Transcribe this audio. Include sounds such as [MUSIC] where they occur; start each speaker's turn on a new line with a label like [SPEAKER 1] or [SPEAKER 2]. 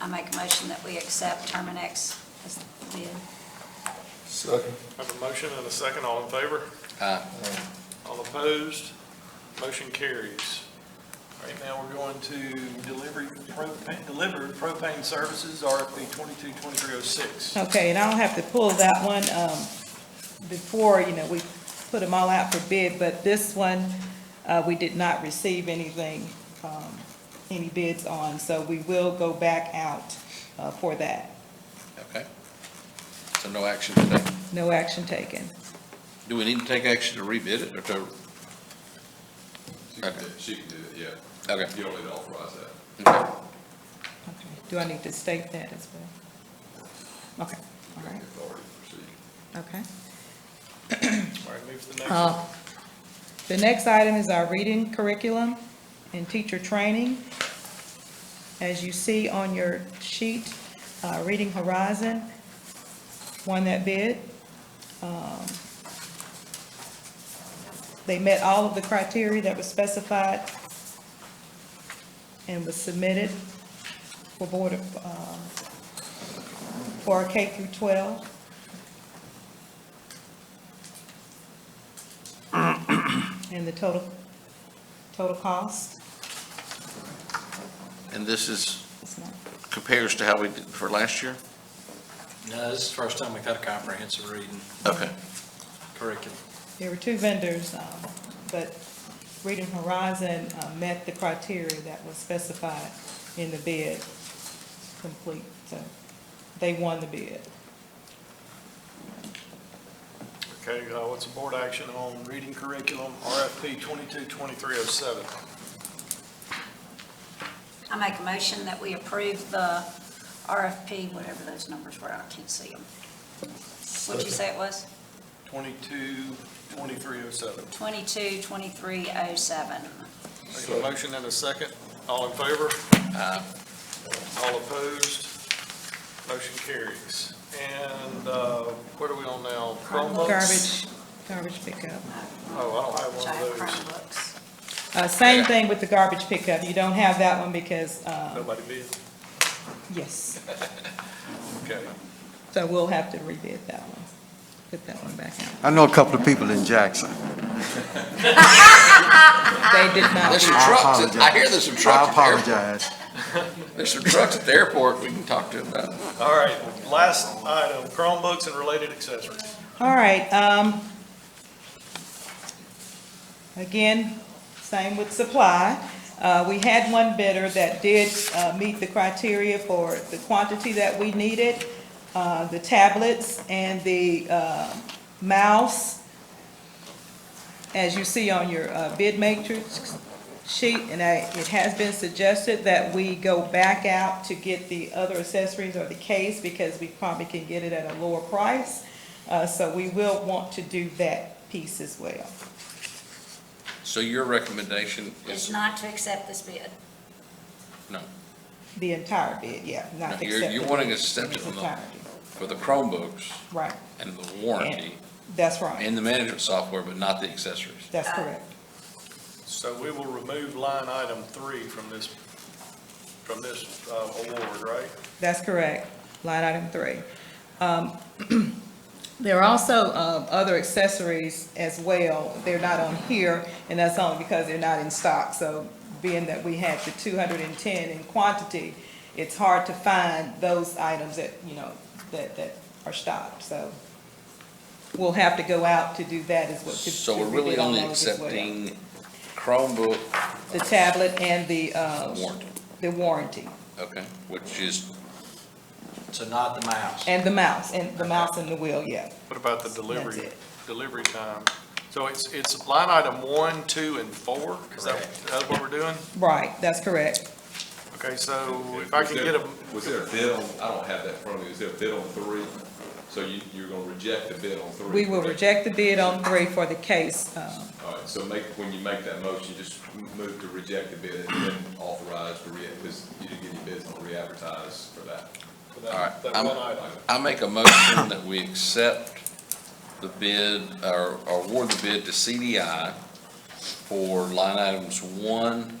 [SPEAKER 1] I make a motion that we accept Terminex as the bid.
[SPEAKER 2] Second.
[SPEAKER 3] Have a motion and a second, all in favor?
[SPEAKER 4] Aye.
[SPEAKER 3] All opposed? Motion carries.
[SPEAKER 5] All right, now we're going to delivery, propane, deliver propane services, RFP twenty-two, twenty-three oh six.
[SPEAKER 6] Okay, and I'll have to pull that one, um, before, you know, we put them all out for bid, but this one, uh, we did not receive anything, um, any bids on, so we will go back out, uh, for that.
[SPEAKER 4] Okay. So no action today.
[SPEAKER 6] No action taken.
[SPEAKER 4] Do we need to take action to rebid it or to,
[SPEAKER 7] She can do it, she can do it, yeah.
[SPEAKER 4] okay.
[SPEAKER 7] You don't need to authorize that.
[SPEAKER 4] Okay.
[SPEAKER 6] Okay. Do I need to state that as well? Okay, all
[SPEAKER 7] You
[SPEAKER 6] right,
[SPEAKER 7] have the authority to proceed.
[SPEAKER 6] okay.
[SPEAKER 3] All right, move to the next one.
[SPEAKER 6] Uh, The next item is our reading curriculum and teacher training. As you see on your sheet, uh, Reading Horizon won that bid. Um, They met all of the criteria that was specified and was submitted for Board of, um, for our K through 12. And the total, total cost,
[SPEAKER 4] And this is,
[SPEAKER 6] it's not,
[SPEAKER 4] compares to how we did for last year?
[SPEAKER 8] No, this is the first time we've had a comprehensive reading
[SPEAKER 4] Okay.
[SPEAKER 8] curriculum.
[SPEAKER 6] there were two vendors, um, but Reading Horizon uh, met the criteria that was specified in the bid complete, so they won the bid.
[SPEAKER 3] Okay, uh, what's the board action on reading curriculum, RFP twenty-two, twenty-three oh seven?
[SPEAKER 1] I make a motion that we approve the RFP, whatever those numbers were, I can't see them. What'd you say it was?
[SPEAKER 3] Twenty-two, twenty-three oh seven.
[SPEAKER 1] 22, 2307.
[SPEAKER 3] Make a motion and a second, all in favor? All opposed? Motion carries. And, uh, what are we on now? Chromebooks?
[SPEAKER 6] Garbage, garbage pickup.
[SPEAKER 3] Oh, I don't have
[SPEAKER 1] Which
[SPEAKER 3] one
[SPEAKER 1] I have
[SPEAKER 3] of those.
[SPEAKER 1] Chromebooks.
[SPEAKER 6] Uh, Same thing with the garbage pickup, you don't have that one because, uh,
[SPEAKER 3] Nobody bid?
[SPEAKER 6] yes,
[SPEAKER 3] Okay.
[SPEAKER 6] so we'll have to rebid that one, put that one back out.
[SPEAKER 9] I know a couple of people in Jackson.
[SPEAKER 6] They did not.
[SPEAKER 4] There's some
[SPEAKER 6] bid.
[SPEAKER 4] trucks, at- I hear there's some
[SPEAKER 9] I
[SPEAKER 4] trucks at the airport.
[SPEAKER 9] apologize.
[SPEAKER 4] There's some trucks at the airport we can talk to about.
[SPEAKER 3] All right, last item, Chromebooks and related accessories.
[SPEAKER 6] All right, um, again, same with supply. Uh, we had one bidder that did, uh, meet the criteria for the quantity that we needed, uh, the tablets and the, uh, mouse. As you see on your, uh, bid matrix sheet, and I, it has been suggested that we go back out to get the other accessories or the case because we probably can get it at a lower price. Uh, so we will want to do that piece as well.
[SPEAKER 4] So your recommendation
[SPEAKER 1] Is
[SPEAKER 4] is,
[SPEAKER 1] not to accept this bid.
[SPEAKER 6] The entire bid, yeah,
[SPEAKER 4] No,
[SPEAKER 6] not
[SPEAKER 4] you're-
[SPEAKER 6] accept.
[SPEAKER 4] you're
[SPEAKER 6] the-
[SPEAKER 4] wanting us to accept it
[SPEAKER 6] the
[SPEAKER 4] on the-
[SPEAKER 6] entirety.
[SPEAKER 4] for the Chromebooks
[SPEAKER 6] Right,
[SPEAKER 4] and the warranty
[SPEAKER 6] that's right.
[SPEAKER 4] and the management software, but not the accessories.
[SPEAKER 6] That's correct.
[SPEAKER 3] So we will remove line item three from this, from this uh, award, right?
[SPEAKER 6] That's correct. Line item three. Um, [CLEARS THROAT] there are also, um, other accessories as well. They're not on here, and that's only because they're not in stock. So being that we had the two hundred and ten in quantity, it's hard to find those items that, you know, that, that are stocked, so we'll have to go out to do that as well. to-
[SPEAKER 4] So
[SPEAKER 6] to
[SPEAKER 4] we're really
[SPEAKER 6] rebid on
[SPEAKER 4] only
[SPEAKER 6] those as well.
[SPEAKER 4] accepting Chromebook
[SPEAKER 6] The tablet and the, uh,
[SPEAKER 4] warranty,
[SPEAKER 6] the warranty,
[SPEAKER 4] okay? Which is,
[SPEAKER 8] So not the mouse.
[SPEAKER 6] and the mouse, and the mouse and the wheel, yeah.
[SPEAKER 3] What about the delivery,
[SPEAKER 6] That's it.
[SPEAKER 3] delivery time? So it's, it's line item one, two, and four? Is that,
[SPEAKER 8] Correct.
[SPEAKER 3] that's what we're doing?
[SPEAKER 6] Right, that's correct.
[SPEAKER 3] Okay, so if I
[SPEAKER 7] Was
[SPEAKER 3] can
[SPEAKER 7] there-
[SPEAKER 3] get a,
[SPEAKER 7] Was there a bid on, I don't have that in front of me, is there a bid on three? So you, you're gonna reject the bid on three?
[SPEAKER 6] We will
[SPEAKER 7] correct?
[SPEAKER 6] reject the bid on three for the case. um,
[SPEAKER 7] All right, so make, when you make that motion, just m- move to reject the bid and then authorize to re, because you didn't get any bids on re-advertise for that.
[SPEAKER 3] for
[SPEAKER 4] all right,
[SPEAKER 3] that that
[SPEAKER 4] I'm-
[SPEAKER 3] one item.
[SPEAKER 4] I make a motion that we accept the bid, or or award the bid to CDI for line items one,